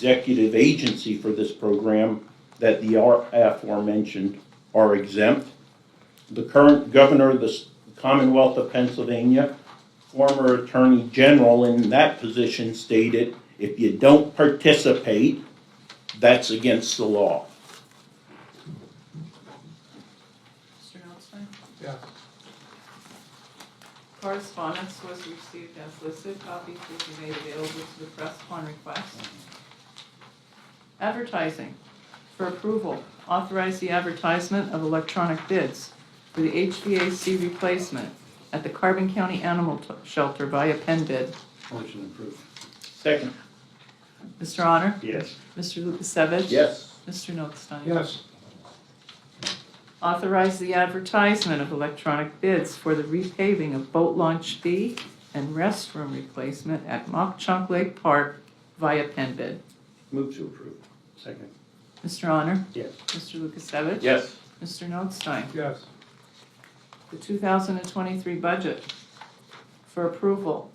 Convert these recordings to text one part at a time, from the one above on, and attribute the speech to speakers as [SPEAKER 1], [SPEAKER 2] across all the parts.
[SPEAKER 1] executive agency for this program that the are- aforementioned are exempt. The current governor of the s- Commonwealth of Pennsylvania, former Attorney General in that position stated, if you don't participate, that's against the law.
[SPEAKER 2] Mr. Nostine?
[SPEAKER 3] Yes.
[SPEAKER 2] Correspondence was received as listed, copies will be made available to the press upon request. Advertising for approval, authorize the advertisement of electronic bids for the HVAC replacement at the Carbon County Animal T- Shelter via pen bid.
[SPEAKER 3] Motion approved.
[SPEAKER 1] Second.
[SPEAKER 2] Mr. Honor?
[SPEAKER 1] Yes.
[SPEAKER 2] Mr. Lukasevich?
[SPEAKER 1] Yes.
[SPEAKER 2] Mr. Notstein?
[SPEAKER 3] Yes.
[SPEAKER 2] Authorize the advertisement of electronic bids for the repaving of boat launch B and restroom replacement at Mock Chunk Lake Park via pen bid.
[SPEAKER 3] Move to approve. Second.
[SPEAKER 2] Mr. Honor?
[SPEAKER 3] Yes.
[SPEAKER 2] Mr. Lukasevich?
[SPEAKER 1] Yes.
[SPEAKER 2] Mr. Notstein?
[SPEAKER 3] Yes.
[SPEAKER 2] The two thousand and twenty-three budget for approval.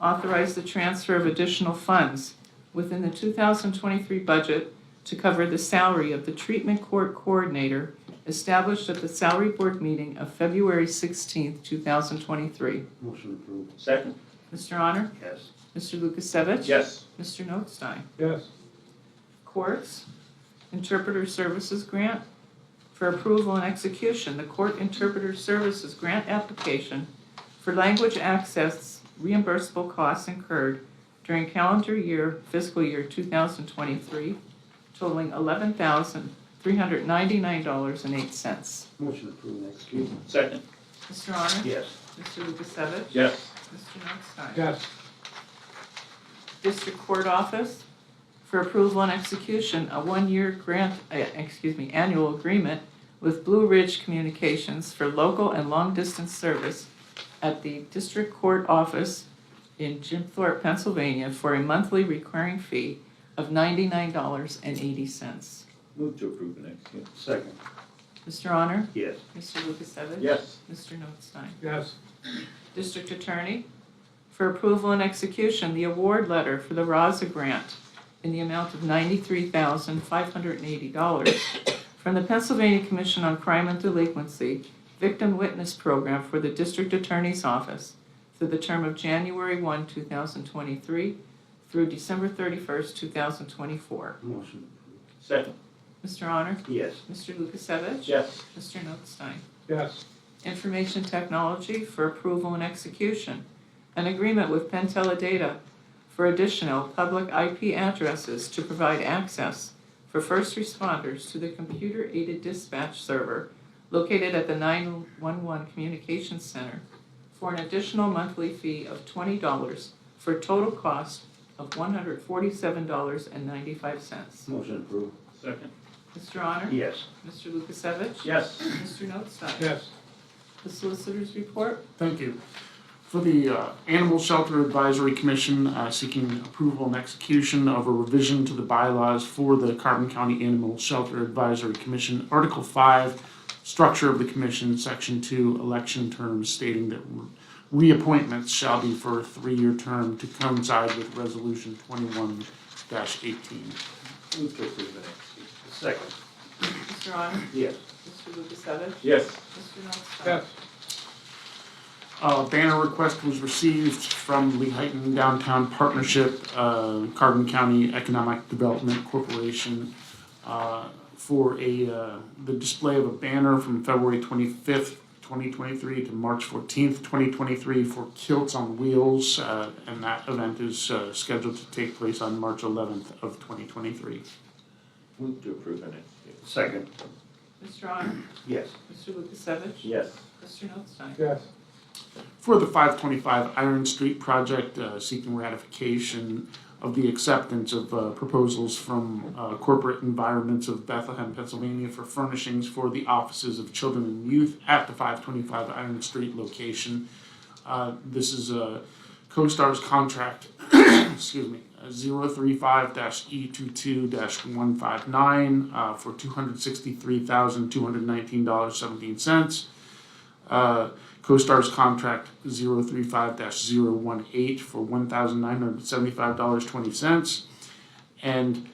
[SPEAKER 2] Authorize the transfer of additional funds within the two thousand twenty-three budget to cover the salary of the treatment court coordinator established at the salary board meeting of February sixteenth, two thousand twenty-three.
[SPEAKER 3] Motion approved.
[SPEAKER 1] Second.
[SPEAKER 2] Mr. Honor?
[SPEAKER 3] Yes.
[SPEAKER 2] Mr. Lukasevich?
[SPEAKER 1] Yes.
[SPEAKER 2] Mr. Notstein?
[SPEAKER 3] Yes.
[SPEAKER 2] Courts Interpreter Services Grant for approval and execution, the Court Interpreter Services Grant application for language access reimbursable costs incurred during calendar year fiscal year two thousand twenty-three totaling eleven thousand three hundred ninety-nine dollars and eight cents.
[SPEAKER 3] Motion approved and executed.
[SPEAKER 1] Second.
[SPEAKER 2] Mr. Honor?
[SPEAKER 3] Yes.
[SPEAKER 2] Mr. Lukasevich?
[SPEAKER 1] Yes.
[SPEAKER 2] Mr. Notstein?
[SPEAKER 3] Yes.
[SPEAKER 2] District Court Office for approval and execution, a one-year grant, uh, excuse me, annual agreement with Blue Ridge Communications for local and long-distance service at the District Court Office in Jim Thorpe, Pennsylvania, for a monthly recurring fee of ninety-nine dollars and eighty cents.
[SPEAKER 1] Move to approve and execute.
[SPEAKER 3] Second.
[SPEAKER 2] Mr. Honor?
[SPEAKER 3] Yes.
[SPEAKER 2] Mr. Lukasevich?
[SPEAKER 1] Yes.
[SPEAKER 2] Mr. Notstein?
[SPEAKER 3] Yes.
[SPEAKER 2] District Attorney, for approval and execution, the award letter for the Raza Grant in the amount of ninety-three thousand five hundred and eighty dollars from the Pennsylvania Commission on Crime and Delinquency Victim Witness Program for the District Attorney's Office for the term of January one, two thousand twenty-three through December thirty-first, two thousand twenty-four.
[SPEAKER 3] Motion approved.
[SPEAKER 1] Second.
[SPEAKER 2] Mr. Honor?
[SPEAKER 3] Yes.
[SPEAKER 2] Mr. Lukasevich?
[SPEAKER 1] Yes.
[SPEAKER 2] Mr. Notstein?
[SPEAKER 3] Yes.
[SPEAKER 2] Information Technology for approval and execution. An agreement with Pentella Data for additional public IP addresses to provide access for first responders to the computer-aided dispatch server located at the 911 Communications Center for an additional monthly fee of $20 for a total cost of $147.95.
[SPEAKER 3] Motion approved.
[SPEAKER 1] Second.
[SPEAKER 2] Mr. Honor?
[SPEAKER 3] Yes.
[SPEAKER 2] Mr. Lukasevich?
[SPEAKER 1] Yes.
[SPEAKER 2] Mr. Notstein?
[SPEAKER 3] Yes.
[SPEAKER 2] The Solicitor's Report?
[SPEAKER 4] Thank you. For the uh, Animal Shelter Advisory Commission, uh, seeking approval and execution of a revision to the bylaws for the Carbon County Animal Shelter Advisory Commission, Article 5, Structure of the Commission, Section 2, Election Terms, stating that reappointments shall be for a three-year term to coincide with Resolution 21-18.
[SPEAKER 3] Move to approve and execute. Second.
[SPEAKER 2] Mr. Honor?
[SPEAKER 3] Yes.
[SPEAKER 2] Mr. Lukasevich?
[SPEAKER 1] Yes.
[SPEAKER 2] Mr. Notstein?
[SPEAKER 3] Yes.
[SPEAKER 4] A banner request was received from Lehighton Downtown Partnership, uh, Carbon County Economic Development Corporation, uh, for a, uh, the display of a banner from February twenty-fifth, twenty twenty-three to March fourteenth, twenty twenty-three for Kilts on Wheels, uh, and that event is, uh, scheduled to take place on March eleventh of twenty twenty-three.
[SPEAKER 1] Move to approve and execute.
[SPEAKER 3] Second.
[SPEAKER 2] Mr. Honor?
[SPEAKER 3] Yes.
[SPEAKER 2] Mr. Lukasevich?
[SPEAKER 1] Yes.
[SPEAKER 2] Mr. Notstein?
[SPEAKER 3] Yes.
[SPEAKER 4] for the 525 Iron Street project, uh, seeking ratification of the acceptance of uh, proposals from uh, corporate environments of Bethlehem, Pennsylvania for furnishings for the offices of children and youth at the 525 Iron Street location. Uh, This is a CoStar's contract, excuse me, E 035-E22-159 uh, for $263,219.17. Uh, CoStar's contract 035-018 for $1,975.20. And